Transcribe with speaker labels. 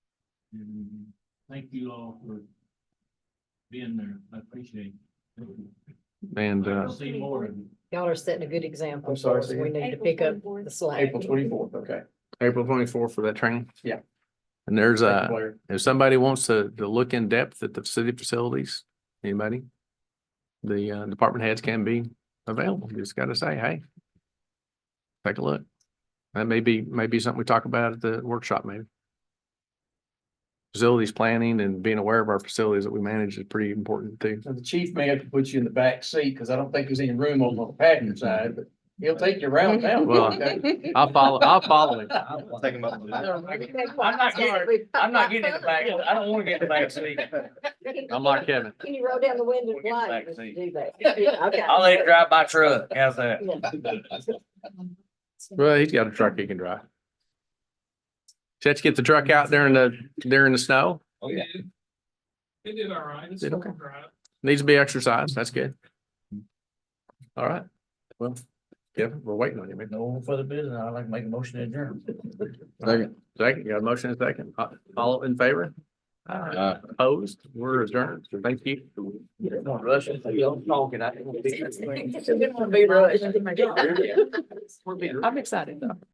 Speaker 1: And thank you all for being there. I appreciate it.
Speaker 2: And,
Speaker 1: I'll
Speaker 2: uh,
Speaker 1: See more of you.
Speaker 3: Y'all are setting a good example
Speaker 4: I'm sorry,
Speaker 3: for us.
Speaker 4: say
Speaker 3: We
Speaker 4: again?
Speaker 3: need to pick up the slack.
Speaker 4: April twenty-fourth, okay.
Speaker 2: April twenty-fourth for that training?
Speaker 4: Yeah.
Speaker 2: And there's
Speaker 4: Thank you,
Speaker 2: a,
Speaker 4: Blair.
Speaker 2: if somebody wants to, to look in depth at the city facilities, anybody? The, uh, department heads can be available. You Just gotta say, hey. Take a look. That may be, may be something we talk about at the workshop, maybe. Facilities planning and being aware of our facilities that we manage is pretty important too.
Speaker 4: So the chief may have to put you in the back seat, because I don't think there's any room on the passenger side, but he'll take you around town.
Speaker 2: Well, I'll follow, I'll follow it.
Speaker 4: I'm not getting- I'm not getting in the back, I don't want to get in the back seat.
Speaker 2: I'm like Kevin.
Speaker 3: Can you roll down the window
Speaker 4: We'll get the
Speaker 3: blind
Speaker 4: back seat.
Speaker 3: do that? Yeah, okay.
Speaker 4: I'll let it drive by truck, how's that?
Speaker 2: Well, he's got a truck he can drive. Chet, you get the truck out there in the, during the snow,
Speaker 4: Oh, yeah.
Speaker 1: It did all right. It's
Speaker 2: Did okay.
Speaker 1: all right.
Speaker 2: needs to be exercised, that's good. All right, well, Kevin, we're waiting on you, man.
Speaker 4: No further business, I'd like to make a motion to adjourn.
Speaker 2: Second. Second, you got a motion and a second, Uh, all in favor?
Speaker 4: Aye.
Speaker 2: Opposed, we're adjourned, thank you.
Speaker 4: Don't rush it, y'all talking, I.
Speaker 3: It's a good one, be rushed.
Speaker 4: Yeah.
Speaker 3: I'm excited.